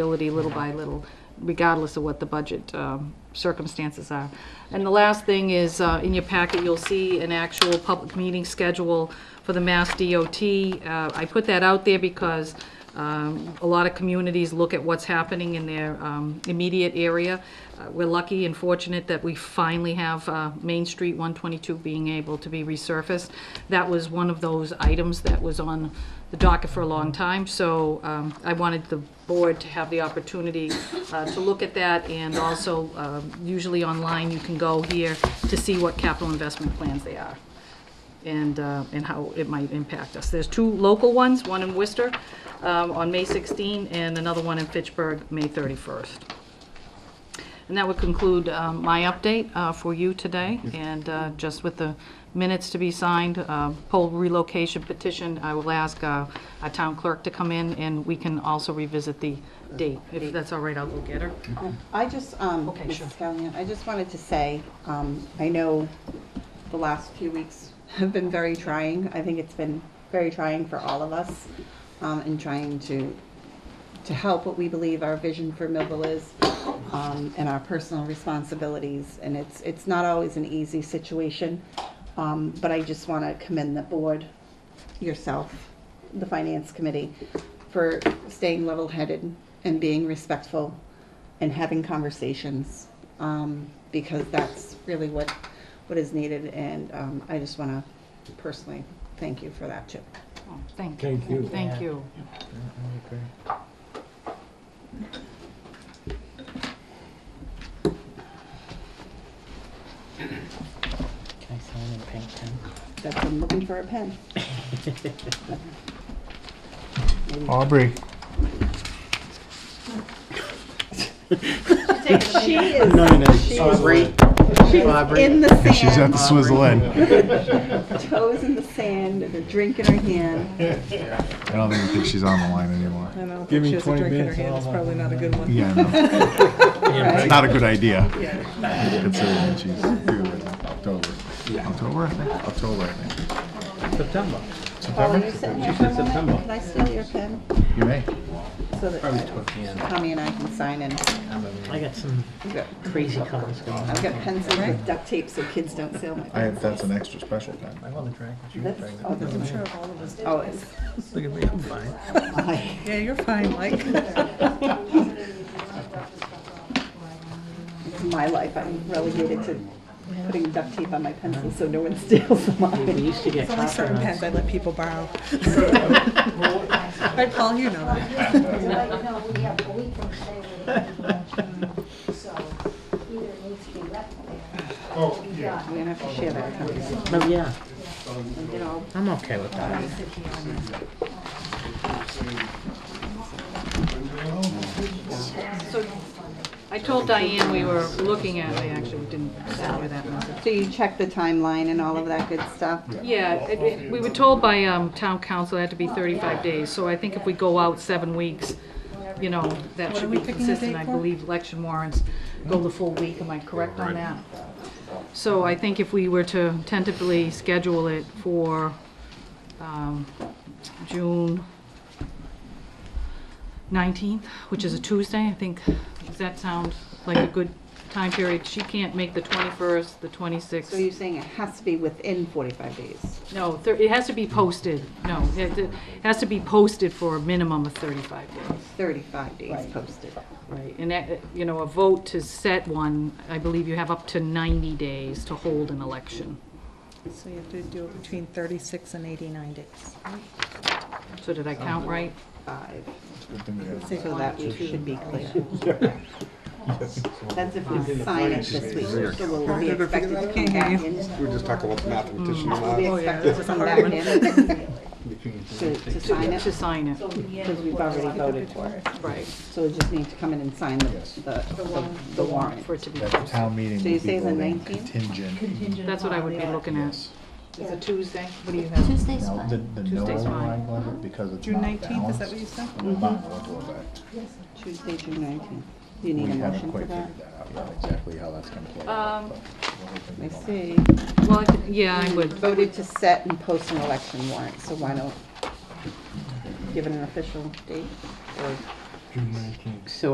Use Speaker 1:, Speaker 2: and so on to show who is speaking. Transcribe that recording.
Speaker 1: ability little by little, regardless of what the budget um, circumstances are. And the last thing is, uh, in your packet, you'll see an actual public meeting schedule for the Mass DOT. Uh, I put that out there because um, a lot of communities look at what's happening in their um, immediate area. Uh, We're lucky and fortunate that we finally have uh, Main Street 122 being able to be resurfaced. That was one of those items that was on the docket for a long time, so um, I wanted the board to have the opportunity uh, to look at that, and also, um, usually online, you can go here to see what capital investment plans they are and, uh, and how it might impact us. There's two local ones, one in Worcester um, on May 16, and another one in Fitchburg, May 31st. And that would conclude um, my update uh, for you today, and uh, just with the minutes to be signed, uh, poll relocation petition, I will ask uh, our town clerk to come in, and we can also revisit the date. If that's all right, I'll go get her.
Speaker 2: Mm-hmm.
Speaker 3: I just, um,
Speaker 1: Okay, sure.
Speaker 3: Mrs. Callahan, I just wanted to say, um, I know the last few weeks have been very trying. I think it's been very trying for all of us, um, in trying to, to help what we believe our vision for Millville is, um, and our personal responsibilities. And it's, it's not always an easy situation, um, but I just want to commend the board, yourself, the finance committee, for staying level-headed and being respectful and having conversations, um, because that's really what, what is needed, and, um, I just wanna personally thank you for that too.
Speaker 1: Oh, Thank you.
Speaker 2: Thank you.
Speaker 1: Thank you.
Speaker 4: Can I sign in pink pen?
Speaker 3: That's, I'm looking for a pen.
Speaker 2: Aubrey.
Speaker 3: She is,
Speaker 4: No, no, no.
Speaker 3: Aubrey. she's in the
Speaker 2: She's at
Speaker 3: sand,
Speaker 2: the Swizzle End. I
Speaker 3: toes in the sand, and a drink in her hand.
Speaker 2: don't even think she's on the line anymore.
Speaker 5: I know, if she has a drink in her hand, it's probably not a good one.
Speaker 2: Yeah, no. It's not a good idea. Considering that she's due in October. October, I think? October, I think.
Speaker 4: September.
Speaker 3: Paul, are Oh, you sitting here for a moment? Can I steal your pen?
Speaker 2: You may.
Speaker 3: So that Tommy and I can sign in.
Speaker 4: I got some
Speaker 3: I've got-
Speaker 4: crazy comments going on.
Speaker 3: I've got pencils with duct tape so kids don't steal my
Speaker 2: I
Speaker 3: pen.
Speaker 2: have, that's an extra special pen.
Speaker 4: want to drink. but you
Speaker 3: That's,
Speaker 4: drink.
Speaker 3: oh, this is
Speaker 5: Sure, all of us do.
Speaker 3: always.
Speaker 4: Look at me, I'm fine.
Speaker 5: Yeah, you're fine, Mike.
Speaker 3: In my life, I'm relegated to putting duct tape on my pencils so no one steals them off
Speaker 4: We
Speaker 3: me.
Speaker 4: used to get
Speaker 5: Only certain pens
Speaker 4: compliments.
Speaker 5: I let people borrow. Right, Paul, you know that.
Speaker 6: So right now, we have a week from today where the election, so either it needs to be left there. Oh, yeah.
Speaker 3: We're gonna have to share that. conversation.
Speaker 4: Oh, yeah,
Speaker 3: You know,
Speaker 4: I'm okay with that.
Speaker 1: So I told Diane we were looking at, I actually didn't send her that message.
Speaker 3: So you check the timeline and all of that good stuff?
Speaker 1: Yeah, it- it- we were told by um, town council it had to be 35 days, so I think if we go out seven weeks, you know, that should be consistent. I believe election warrants go the full week, am I correct on that? So I think if we were to tentatively schedule it for um, June 19th, which is a Tuesday, I think, does that sound like a good time period? She can't make the 21st, the 26th.
Speaker 3: So you're saying it has to be within 45 days?
Speaker 1: No, thir- it has to be posted, no, it it has to be posted for a minimum of 35 days,
Speaker 3: 35 days posted.
Speaker 1: right? And that, you know, a vote to set one, I believe you have up to 90 days to hold an election.
Speaker 5: So you have to do it between 36 and 89 days.
Speaker 1: So did I count right?
Speaker 3: Five.
Speaker 2: Good thing we have-
Speaker 3: So that we should be clear. That's if we sign it this week, so we'll be expected to come back in.
Speaker 7: We were just talking about mathematicians.
Speaker 3: We'll be
Speaker 7: and
Speaker 3: expected to come back in to, to sign
Speaker 1: To
Speaker 3: it,
Speaker 1: sign it,
Speaker 3: because we've already voted for it.
Speaker 1: right,
Speaker 3: So we just need to come in and sign the, the- the, the warrant.
Speaker 1: for it to be,
Speaker 2: That town meeting
Speaker 3: So you
Speaker 2: would
Speaker 3: say
Speaker 2: be
Speaker 3: the
Speaker 2: voting
Speaker 3: 19th?
Speaker 2: contingent.
Speaker 1: that's what I would be looking at.
Speaker 2: Yes.
Speaker 1: It's a Tuesday, what do you have?
Speaker 6: Tuesday's
Speaker 2: Now, the, the no
Speaker 1: Tuesday's fine.
Speaker 2: line level, because it's
Speaker 5: June
Speaker 2: not
Speaker 5: 19th, is that
Speaker 2: balanced,
Speaker 5: what you said?
Speaker 2: will not go into effect.
Speaker 3: Tuesday, June nineteenth. You
Speaker 2: We
Speaker 3: need a
Speaker 2: haven't
Speaker 3: motion for
Speaker 2: quite
Speaker 3: that?
Speaker 2: figured that out yet, exactly how that's gonna play out.
Speaker 1: Um,
Speaker 2: but we're hoping we
Speaker 3: I
Speaker 2: don't-
Speaker 3: see.
Speaker 1: Well, I could- yeah, I would,
Speaker 3: Voted to set and post an election warrant, so why don't give it an official date? Or
Speaker 8: June nineteenth.
Speaker 4: So